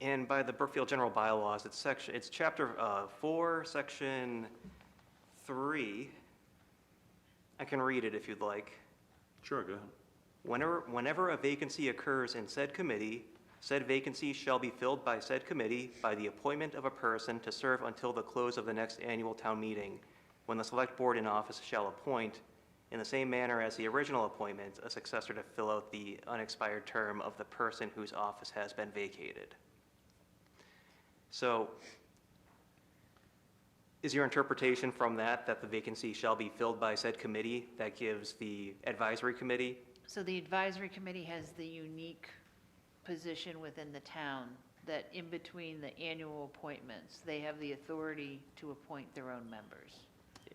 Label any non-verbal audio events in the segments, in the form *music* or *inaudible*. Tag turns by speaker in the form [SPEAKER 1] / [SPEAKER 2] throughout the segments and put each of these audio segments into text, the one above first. [SPEAKER 1] And by the Brookfield General Bylaws, it's section, it's chapter uh, four, section three. I can read it if you'd like.
[SPEAKER 2] Sure, go ahead.
[SPEAKER 1] Whenever, whenever a vacancy occurs in said committee, said vacancy shall be filled by said committee by the appointment of a person to serve until the close of the next annual town meeting, when the select board in office shall appoint, in the same manner as the original appointment, a successor to fill out the unexpired term of the person whose office has been vacated. So is your interpretation from that, that the vacancy shall be filled by said committee, that gives the advisory committee
[SPEAKER 3] So the advisory committee has the unique position within the town that in between the annual appointments, they have the authority to appoint their own members.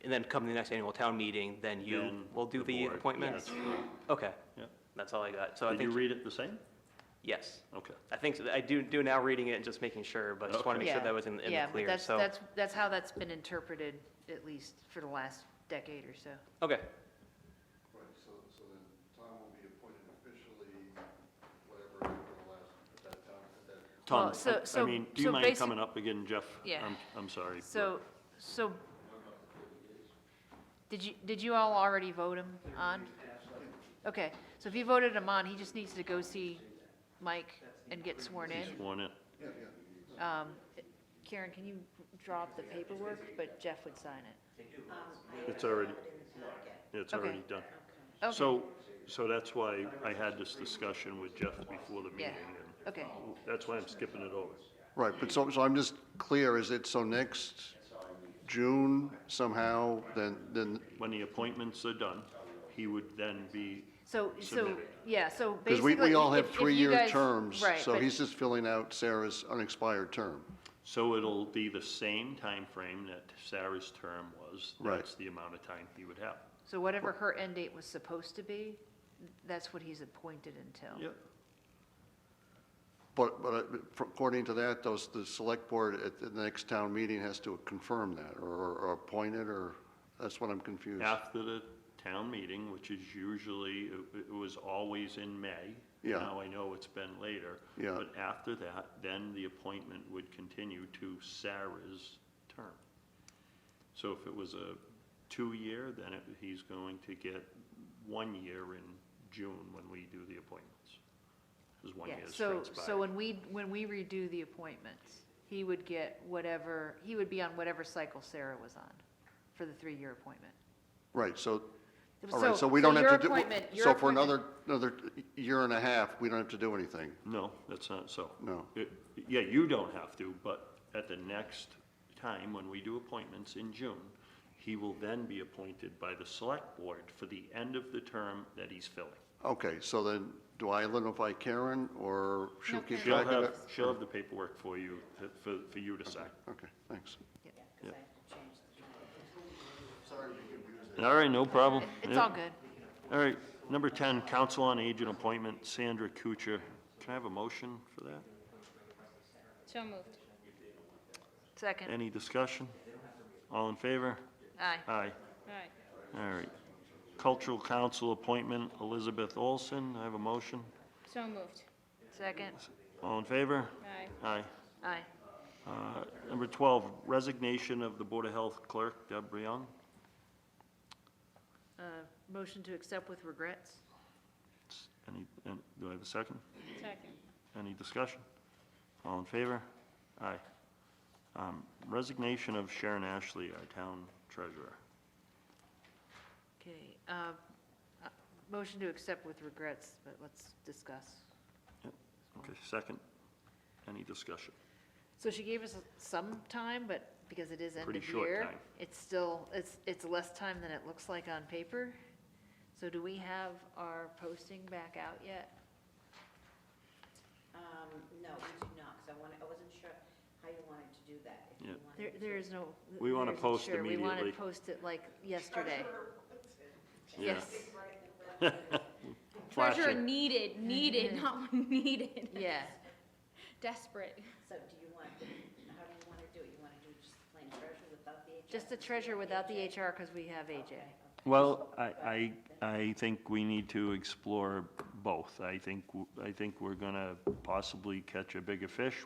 [SPEAKER 1] And then come the next annual town meeting, then you
[SPEAKER 2] Then
[SPEAKER 1] will do the
[SPEAKER 2] board.
[SPEAKER 1] appointments?
[SPEAKER 2] That's correct.
[SPEAKER 1] Okay,
[SPEAKER 2] Yeah.
[SPEAKER 1] that's all I got. So I
[SPEAKER 2] Did you
[SPEAKER 1] think,
[SPEAKER 2] read it the same?
[SPEAKER 1] yes.
[SPEAKER 2] Okay.
[SPEAKER 1] I think, so. I do, do now reading it and just making sure, but just want to
[SPEAKER 2] Okay.
[SPEAKER 1] make sure
[SPEAKER 3] Yeah.
[SPEAKER 1] that was in, in
[SPEAKER 3] Yeah,
[SPEAKER 1] the
[SPEAKER 3] but
[SPEAKER 1] clear,
[SPEAKER 3] that's-
[SPEAKER 1] so.
[SPEAKER 3] That's, that's how that's been interpreted, at least for the last decade or so.
[SPEAKER 1] Okay,
[SPEAKER 4] Right, so, so then Tom will be appointed officially, whatever, after the last, at that time, at that
[SPEAKER 2] Tom,
[SPEAKER 3] Well, so-
[SPEAKER 2] I- I
[SPEAKER 3] so-
[SPEAKER 2] mean, do
[SPEAKER 3] so
[SPEAKER 2] you mind
[SPEAKER 3] basic-
[SPEAKER 2] coming up again, Jeff?
[SPEAKER 3] Yeah.
[SPEAKER 2] I'm, I'm sorry. but-
[SPEAKER 3] So, so, did you, did you all already vote him on? Okay, so if you voted him on, he just needs to go see Mike and get sworn in.
[SPEAKER 2] He's sworn in.
[SPEAKER 3] Um, Karen, can you drop the paperwork, but Jeff would sign it?
[SPEAKER 2] It's already, it's
[SPEAKER 3] Okay.
[SPEAKER 2] already done.
[SPEAKER 3] Okay.
[SPEAKER 2] So, so that's why I had this discussion with Jeff before the meeting, and
[SPEAKER 3] Yeah, okay,
[SPEAKER 2] that's why I'm skipping it over.
[SPEAKER 4] Right, but so, so I'm just clear, is it so next June somehow, then, then,
[SPEAKER 2] When the appointments are done, he would then be,
[SPEAKER 3] so, so,
[SPEAKER 2] Submitted.
[SPEAKER 3] yeah, so
[SPEAKER 4] because
[SPEAKER 3] basically.
[SPEAKER 4] we, we all have
[SPEAKER 3] if- if you
[SPEAKER 4] three-year
[SPEAKER 3] guys-
[SPEAKER 4] terms,
[SPEAKER 3] right,
[SPEAKER 4] so
[SPEAKER 3] but-
[SPEAKER 4] he's just filling out Sarah's unexpired term.
[SPEAKER 2] so it'll be the same time frame that Sarah's term was.
[SPEAKER 4] Right.
[SPEAKER 2] That's the amount of time he would have.
[SPEAKER 3] So whatever her end date was supposed to be, that's what he's appointed until.
[SPEAKER 2] Yep.
[SPEAKER 4] But, but uh, according to that, those, the select board at the next town meeting has to confirm that, or, or appoint it, or, that's what I'm confused.
[SPEAKER 2] After the town meeting, which is usually, it- it was always in May.
[SPEAKER 4] Yeah.
[SPEAKER 2] Now I know it's been later.
[SPEAKER 4] Yeah.
[SPEAKER 2] But after that, then the appointment would continue to Sarah's term. So if it was a two-year, then it- he's going to get one year in June when we do the appointments. Because one
[SPEAKER 3] Yeah,
[SPEAKER 2] year's
[SPEAKER 3] so, so
[SPEAKER 2] transpired.
[SPEAKER 3] when we, when we redo the appointments, he would get whatever, he would be on whatever cycle Sarah was on for the three-year appointment.
[SPEAKER 4] Right, so, all right, so we don't
[SPEAKER 3] your
[SPEAKER 4] have to do,
[SPEAKER 3] appointment- your
[SPEAKER 4] so for
[SPEAKER 3] appointment-
[SPEAKER 4] another, another year and a half, we don't have to do anything.
[SPEAKER 2] No, that's not so.
[SPEAKER 4] No.
[SPEAKER 2] It- Yeah, you don't have to, but at the next time, when we do appointments in June, he will then be appointed by the select board for the end of the term that he's filling.
[SPEAKER 4] Okay, so then, do I identify Karen, or she'll
[SPEAKER 3] No,
[SPEAKER 4] keep
[SPEAKER 2] She'll
[SPEAKER 4] track of it?
[SPEAKER 2] have, she'll have the paperwork for you, to- for, for you to sign.
[SPEAKER 4] Okay, thanks.
[SPEAKER 2] All right, no problem.
[SPEAKER 3] It's
[SPEAKER 2] Yeah.
[SPEAKER 3] all good.
[SPEAKER 2] All right, number 10, Council on Agent Appointment, Sandra Kuchar. Can I have a motion for that?
[SPEAKER 5] So moved.
[SPEAKER 3] Second,
[SPEAKER 2] Any discussion? All in favor?
[SPEAKER 3] aye.
[SPEAKER 2] Aye.
[SPEAKER 5] Aye.
[SPEAKER 2] All right. Cultural Council appointment, Elizabeth Olson. I have a motion.
[SPEAKER 5] So moved.
[SPEAKER 3] Second,
[SPEAKER 2] All in favor?
[SPEAKER 5] Aye.
[SPEAKER 2] Aye.
[SPEAKER 3] aye.
[SPEAKER 2] Uh, Number 12, resignation of the Board of Health Clerk, Deb Young.
[SPEAKER 3] Uh, Motion to accept with regrets?
[SPEAKER 2] Any, and- do I have a second?
[SPEAKER 5] Second.
[SPEAKER 2] Any discussion? All in favor? Aye. Um, Resignation of Sharon Ashley, our town treasurer.
[SPEAKER 3] Okay. uh, uh, Motion to accept with regrets, but let's discuss.
[SPEAKER 2] Okay, second. Any discussion?
[SPEAKER 3] So she gave us some time, but because it is end
[SPEAKER 2] Pretty
[SPEAKER 3] of
[SPEAKER 2] short
[SPEAKER 3] year,
[SPEAKER 2] time.
[SPEAKER 3] it's still, it's, it's less time than it looks like on paper. So do we have our posting back out yet?
[SPEAKER 6] Um, no, we do not, because I wanted, I wasn't sure how you wanted to do that. if you
[SPEAKER 2] Yeah.
[SPEAKER 6] wanted
[SPEAKER 3] There,
[SPEAKER 6] to-
[SPEAKER 3] there is no.
[SPEAKER 2] We wanna
[SPEAKER 3] there isn't
[SPEAKER 2] post
[SPEAKER 3] sure. We want
[SPEAKER 2] immediately.
[SPEAKER 3] to post it like yesterday.
[SPEAKER 2] Yeah.
[SPEAKER 3] Yes,
[SPEAKER 5] Treasurer
[SPEAKER 2] Flashing.
[SPEAKER 5] needed, needed, not *laughs* needed.
[SPEAKER 3] yeah.
[SPEAKER 5] Desperate.
[SPEAKER 6] So do you want, how do you want to do it? You want to do just plain treasure without the HR?
[SPEAKER 3] Just the treasure without the HR because we have AJ.
[SPEAKER 2] Well, I, I, I think we need to explore both. I think, w- I think we're gonna possibly catch a bigger fish